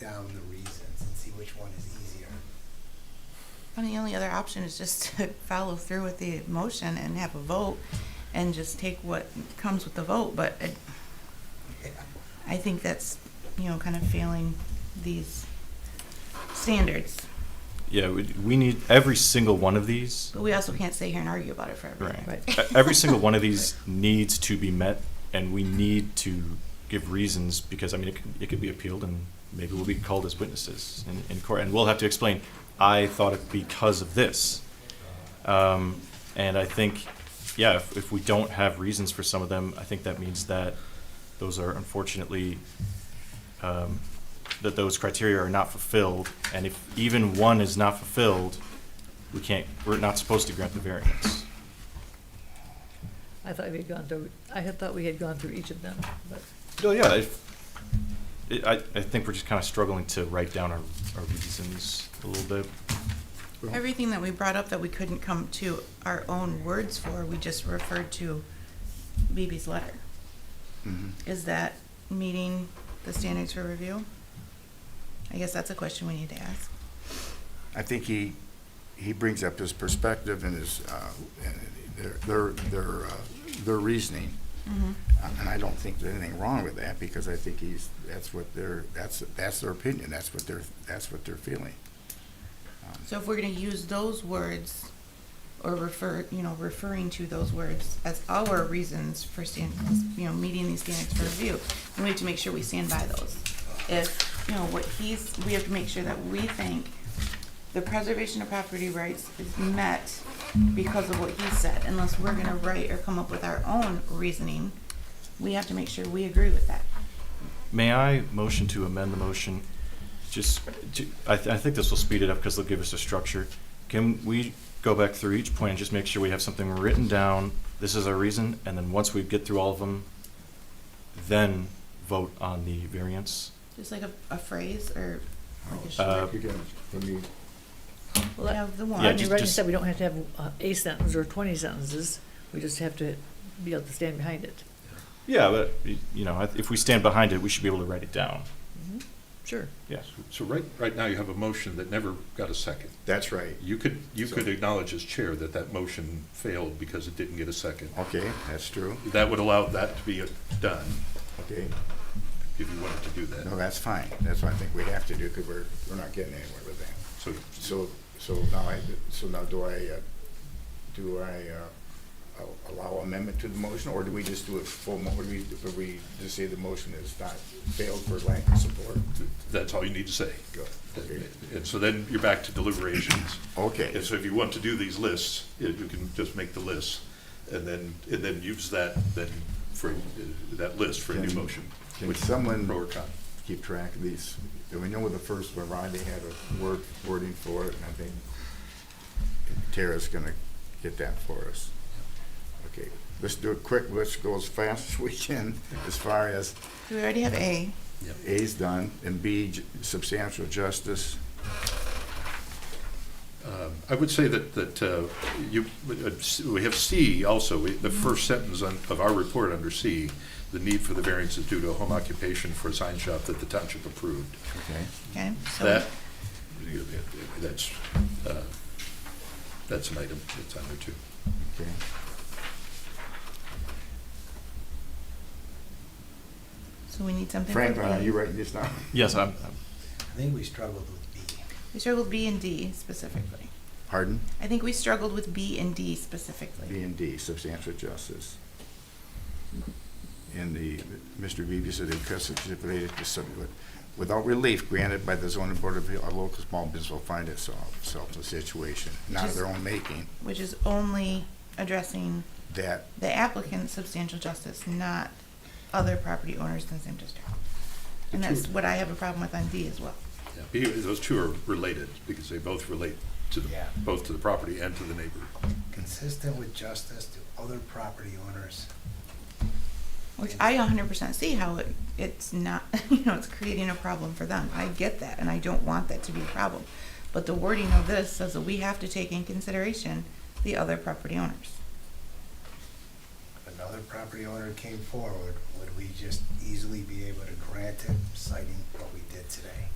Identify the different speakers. Speaker 1: down the reasons and see which one is easier.
Speaker 2: I mean, the only other option is just to follow through with the motion and have a vote and just take what comes with the vote, but it- I think that's, you know, kind of failing these standards.
Speaker 3: Yeah, we, we need every single one of these.
Speaker 2: But we also can't stay here and argue about it forever.
Speaker 3: Right.
Speaker 4: Right.
Speaker 3: E- Every single one of these needs to be met, and we need to give reasons because I mean it could, it could be appealed, and maybe we'll be called as witnesses in, in court, and we'll have to explain. I thought it because of this, um, and I think, yeah, if, if we don't have reasons for some of them, I think that means that those are unfortunately um, that those criteria are not fulfilled, and if even one is not fulfilled, we can't. We're not supposed to grant the variance.
Speaker 4: I thought we had gone through, I had thought we had gone through each of them, but
Speaker 3: Well, yeah, if, it, I, I think we're just kind of struggling to write down our, our reasons a little bit.
Speaker 2: Everything that we brought up that we couldn't come to our own words for, we just referred to Beebe's letter.
Speaker 5: Mm-hmm.
Speaker 2: Is that meeting the standards for review? I guess that's a question we need to ask.
Speaker 5: I think he, he brings up his perspective and his, uh, and their, their- their, uh, their reasoning. Um,
Speaker 2: Mm-hmm.
Speaker 5: And I don't think there's anything wrong with that, because I think he's, that's what their, that's, that's their opinion, that's what they're, that's what they're feeling. Um,
Speaker 2: So if we're gonna use those words, or refer, you know, referring to those words as our reasons for stand, you know, meeting these standards for review, then we have to make sure we stand by those. If, you know, what he's, we have to make sure that we think the preservation of property rights is met because of what he said, unless we're gonna write or come up with our own reasoning, we have to make sure we agree with that.
Speaker 3: May I motion to amend the motion? Just, to- I, th- I think this will speed it up because they'll give us a structure. Can we go back through each point and just make sure we have something written down? This is our reason, and then once we get through all of them, then vote on the variance.
Speaker 2: Just like a, a phrase or like a
Speaker 3: Uh,
Speaker 2: short, we
Speaker 4: Well,
Speaker 2: have the one.
Speaker 3: Yeah,
Speaker 4: Rodney
Speaker 3: just-
Speaker 4: Rodney
Speaker 3: just-
Speaker 4: said we don't have to have uh, a sentence or twenty sentences, we just have to be able to stand behind it.
Speaker 3: Yeah, but, y- you know, if we stand behind it, we should be able to write it down.
Speaker 4: Mhm. Sure.
Speaker 3: Yes.
Speaker 6: So right, right now you have a motion that never got a second.
Speaker 5: That's right.
Speaker 6: You could, you could
Speaker 5: So-
Speaker 6: acknowledge as chair that that motion failed because it didn't get a second.
Speaker 5: Okay, that's true,
Speaker 6: That would allow that to be done
Speaker 5: okay,
Speaker 6: if you wanted to do
Speaker 5: no,
Speaker 6: that.
Speaker 5: that's fine, that's what I think we have to do, because we're, we're not getting anywhere with that.
Speaker 6: So
Speaker 5: So, so now I, so now do I, uh, do I uh, a- allow amendment to the motion, or do we just do a full, mo- would we, would we just say the motion is not failed for lack of support?
Speaker 6: that's all you need to say.
Speaker 5: Go. Okay.
Speaker 6: And so then you're back to deliberations.
Speaker 5: Okay,
Speaker 6: And so if you want to do these lists, you you can just make the list and then, and then use that, then for, uh, that list for a new
Speaker 5: Can-
Speaker 6: motion.
Speaker 5: can
Speaker 6: which-
Speaker 5: someone-
Speaker 6: Pro or con.
Speaker 5: keep track of these. And we know with the first one, Rodney had a word, wording for it, and I think Tara's gonna get that for us. Okay, let's do it quick, let's go as fast as we can as far as
Speaker 2: Do we already have A?
Speaker 5: A's done, and B, j- substantial justice.
Speaker 6: Um, I would say that, that uh, you, uh, we have C also, we- the first sentence on- of our report under C, the need for the variance is due to a home occupation for a sign shop that the township approved.
Speaker 5: Okay.
Speaker 2: Okay, so.
Speaker 6: That, that's, uh, that's an item that's on there too.
Speaker 5: Okay.
Speaker 2: So we need something.
Speaker 5: Frank,
Speaker 2: for
Speaker 5: are
Speaker 2: B.
Speaker 5: you writing this down?
Speaker 3: Yes, I'm, I'm-
Speaker 1: I think we struggled with B.
Speaker 2: We struggled B and D specifically.
Speaker 5: Pardon?
Speaker 2: I think we struggled with B and D specifically.
Speaker 5: B and D, substantial justice. And the, Mr. Beebe said the request is stipulated to some, without relief granted by the zoning board of, appeal, a local small business will find itself, itself in a situation, not of their own making,
Speaker 2: Which is only addressing
Speaker 5: that,
Speaker 2: the applicant's substantial justice, not other property owners in the same district. And that's what I have a problem with on D as well.
Speaker 6: Yeah, B- Those two are related because they both relate to, the-
Speaker 1: Yeah.
Speaker 6: both to the property and to the neighbor.
Speaker 1: Consistent with justice to other property owners.
Speaker 2: Which I hundred percent see how it, it's not, you know, it's creating a problem for them. I get that, and I don't want that to be a problem. But the wording of this says that we have to take in consideration the other property owners.
Speaker 1: If another property owner came forward, would we just easily be able to grant it citing what we did today?